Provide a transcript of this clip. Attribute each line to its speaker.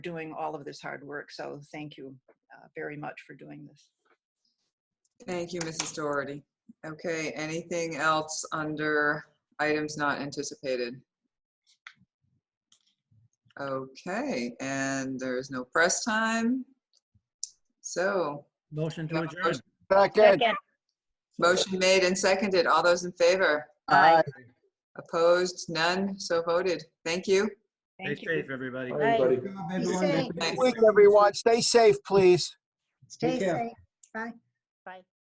Speaker 1: doing all of this hard work. So thank you uh, very much for doing this.
Speaker 2: Thank you, Mrs. Doherty. Okay, anything else under items not anticipated? Okay, and there's no press time. So,
Speaker 3: Motion
Speaker 2: Yeah,
Speaker 3: to adjourn.
Speaker 4: Second.
Speaker 2: motion made and seconded. All those in favor?
Speaker 4: Aye.
Speaker 2: Opposed? None? So voted. Thank you.
Speaker 3: Stay
Speaker 1: Thank you.
Speaker 3: safe, everybody.
Speaker 5: Bye.
Speaker 4: Everybody.
Speaker 5: Stay
Speaker 4: Good Week, everyone. Stay safe, please.
Speaker 5: Stay
Speaker 6: Take care.
Speaker 5: safe. Bye.
Speaker 7: Bye.